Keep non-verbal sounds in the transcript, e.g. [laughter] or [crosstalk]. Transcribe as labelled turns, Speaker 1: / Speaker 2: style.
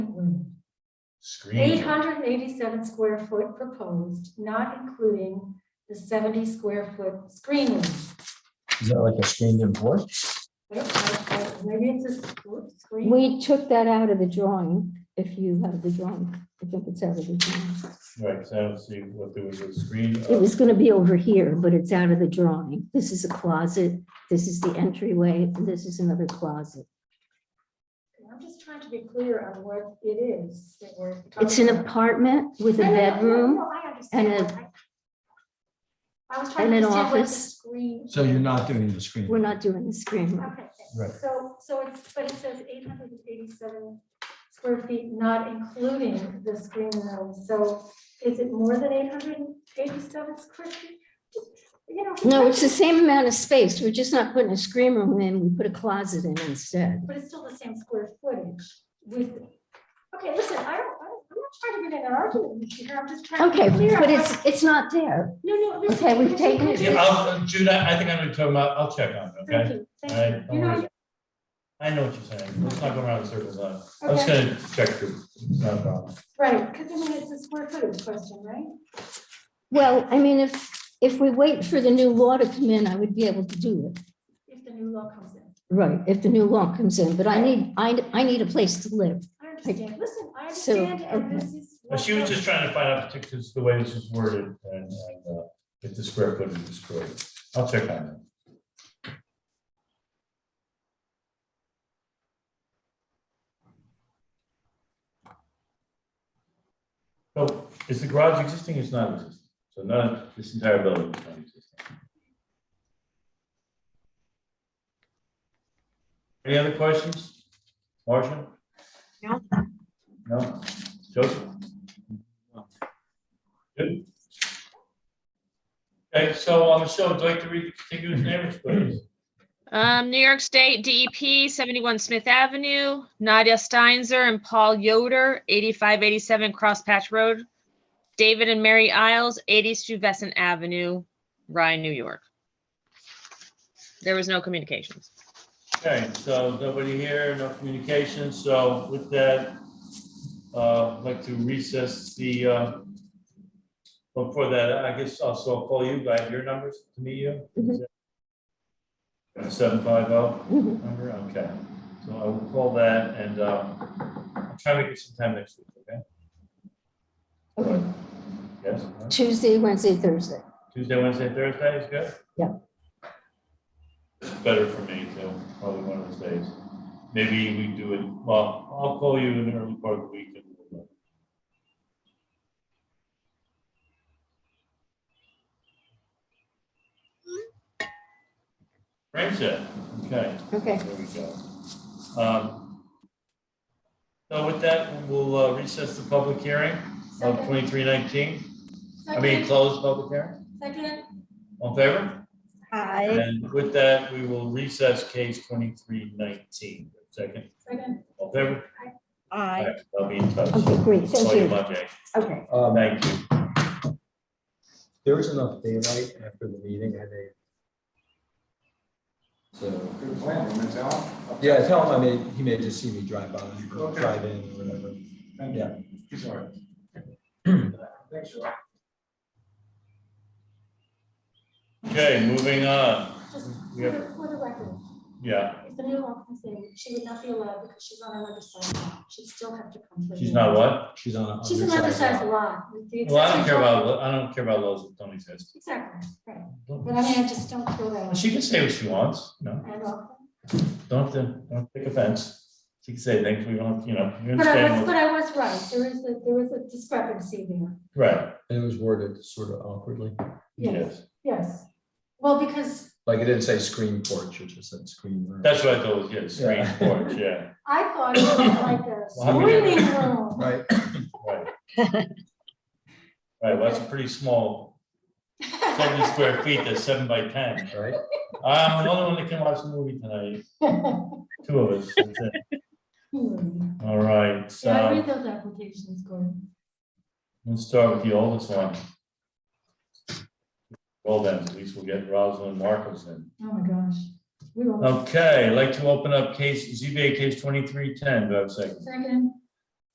Speaker 1: Mm-hmm.
Speaker 2: Eight
Speaker 1: Screen.
Speaker 2: hundred and eighty-seven square foot proposed, not including the seventy square foot screen room.
Speaker 1: Is that like a screened in porch?
Speaker 2: I don't know, uh, Maybe it's a s- screen.
Speaker 3: We took that out of the drawing, if you have the drawing, I think it's out of the drawing.
Speaker 1: Right, because I don't see what there was a screen.
Speaker 3: It was gonna be over here, but it's out of the drawing. This is a closet, this is the entryway, and this is another closet.
Speaker 2: I'm just trying to be clear on what it is that we're. talking
Speaker 3: It's an
Speaker 2: about.
Speaker 3: apartment with a
Speaker 2: No, no, no, no,
Speaker 3: bedroom.
Speaker 2: no, I understand.
Speaker 3: and
Speaker 2: I was trying
Speaker 3: and
Speaker 2: to
Speaker 3: an
Speaker 2: understand what the
Speaker 3: office.
Speaker 2: screen.
Speaker 4: So you're not doing the screen.
Speaker 3: We're not doing the screen room.
Speaker 2: Okay,
Speaker 1: Right.
Speaker 2: so, so it's, but it says eight hundred and eighty-seven square feet, not including the screen room. So is it more than eight hundred and eighty-seven square feet? You know.
Speaker 3: No, it's the same amount of space. We're just not putting a screen room in, we put a closet in instead.
Speaker 2: But it's still the same square footage with, okay, listen, I don't, I don't- I'm not trying to get in an argument with you here. I'm just trying. to be
Speaker 3: Okay,
Speaker 2: clear
Speaker 3: but
Speaker 2: on
Speaker 3: it's, it's not there.
Speaker 2: what- No, no. listen,
Speaker 3: okay, we've
Speaker 2: listen,
Speaker 3: taken it.
Speaker 1: Yeah, I'll, Jude, I I think I know what you're talking about. I'll check on it,
Speaker 2: Thank
Speaker 1: okay?
Speaker 2: you,
Speaker 1: All
Speaker 2: thank
Speaker 1: right, no
Speaker 2: you. You know,
Speaker 1: worries. I know what you're saying. Let's not go around in circles on it. I'm just
Speaker 2: Okay.
Speaker 1: gonna check uh, through. It's not a problem.
Speaker 2: right, because I mean, it's a square footage question, right?
Speaker 3: Well, I mean, if, if we wait for the new law to come in, I would be able to do it.
Speaker 2: If the new law comes in.
Speaker 3: Right, if the new law comes in, but I need, I, I need a place to live.
Speaker 2: I understand. Listen, I
Speaker 3: So,
Speaker 2: understand, and this is.
Speaker 1: But she was just trying to find out because the way this is worded and, and uh, if the square footage is correct. I'll check on it. So is the garage existing? It's not existing. So none, this entire building is not existing. Any other questions? Marcia?
Speaker 5: No.
Speaker 1: No? Joseph? Good. Okay, so um, Michelle, would you like to read the contiguous neighbors, please?
Speaker 5: Um, New York State DEP, seventy-one Smith Avenue, Nadia Steinzer and Paul Yoder, eighty-five eighty-seven Cross Patch Road, David and Mary Isles, eighty Stuyvesant Avenue, Ryan, New York. There was no communications.
Speaker 1: Okay, so nobody here, no communication, so with that, uh, I'd like to recess the, uh, before that, I guess also I'll call you by your numbers to meet you.
Speaker 3: Mhm.
Speaker 1: Seven five oh.
Speaker 3: Mhm.
Speaker 1: Number, okay, so I will call that and uh, I'll try to get some time next week, okay?
Speaker 3: Okay.
Speaker 1: Yes, all right.
Speaker 3: Tuesday, Wednesday, Thursday.
Speaker 1: Tuesday, Wednesday, Thursday is good?
Speaker 3: Yeah.
Speaker 1: It's Better for me too, probably one of those days. Maybe we do it, well, I'll call you in the early part of the week. and we'll- Friendship, okay.
Speaker 3: Okay.
Speaker 1: There we go. Um, So with that, we'll uh, recess the public hearing of
Speaker 2: Second,
Speaker 1: twenty-three nineteen. I mean,
Speaker 2: second,
Speaker 1: close public hearing.
Speaker 2: second,
Speaker 1: All in favor?
Speaker 3: Hi.
Speaker 1: And with that, we will recess case twenty-three nineteen. Second,
Speaker 2: second.
Speaker 1: all in favor? All
Speaker 3: Aye.
Speaker 1: right, I'll be in touch.
Speaker 3: Okay, great,
Speaker 1: Call
Speaker 3: thank
Speaker 1: you
Speaker 3: you.
Speaker 1: Monday.
Speaker 3: Okay.
Speaker 4: Um,
Speaker 1: Thank you.
Speaker 4: There was enough daylight after the meeting, I think. So,
Speaker 6: Good plan, you meant to tell him?
Speaker 4: yeah, tell him I may, he may just see me drive by,
Speaker 6: Okay.
Speaker 4: drive in, or whatever.
Speaker 6: Thank you.
Speaker 4: Yeah.
Speaker 6: He's all right. Thanks, Joe.
Speaker 1: Okay, moving on.
Speaker 2: Just for
Speaker 1: We have-
Speaker 2: the- for the record,
Speaker 1: Yeah,
Speaker 2: if the new law comes in, she would not be allowed because she's on another side lot. She'd still have to come. for
Speaker 1: she's
Speaker 2: the-
Speaker 1: not what?
Speaker 4: She's on. a-
Speaker 2: She's
Speaker 4: on your
Speaker 2: another
Speaker 4: side.
Speaker 2: side lot. with the
Speaker 1: Well, I don't
Speaker 2: accessory
Speaker 1: care
Speaker 2: dwelling.
Speaker 1: about, I don't care about laws that don't exist.
Speaker 2: Exactly, right. But I mean, I just don't feel that.
Speaker 1: She can say what she wants, you know?
Speaker 2: I know.
Speaker 1: Don't have to, don't take offense. She can say things we don't, you know, you
Speaker 2: But I was,
Speaker 1: understand.
Speaker 2: but
Speaker 1: what-
Speaker 2: I was right. There is a, there was a discrepancy there.
Speaker 1: Right,
Speaker 4: And it was worded sort of awkwardly,
Speaker 2: Yes,
Speaker 1: yes.
Speaker 2: yes. Well, because
Speaker 4: like it didn't say screen porch, it just said screen room.
Speaker 1: That's what I thought was, yeah, screen
Speaker 4: Yeah.
Speaker 1: porch, yeah,
Speaker 2: I thought it was like a
Speaker 1: Well, I mean-
Speaker 2: screening room.
Speaker 4: Right,
Speaker 1: right. Right, well, that's a pretty small,
Speaker 2: [laughs]
Speaker 1: seventy square feet, that's seven by ten.
Speaker 4: right?
Speaker 1: I'm the only one that can watch the movie tonight, two of us, that's it.
Speaker 2: Hmm.
Speaker 1: All right,
Speaker 2: Yeah, I
Speaker 1: so
Speaker 2: read those applications, Gordon.
Speaker 1: we'll start with the oldest one. Well then, at least we'll get Rosalind Marcos in.
Speaker 2: Oh, my gosh. We were
Speaker 1: Oh. Okay, I'd like to open up case, ZBA case twenty-three ten, do I have a second?
Speaker 2: second,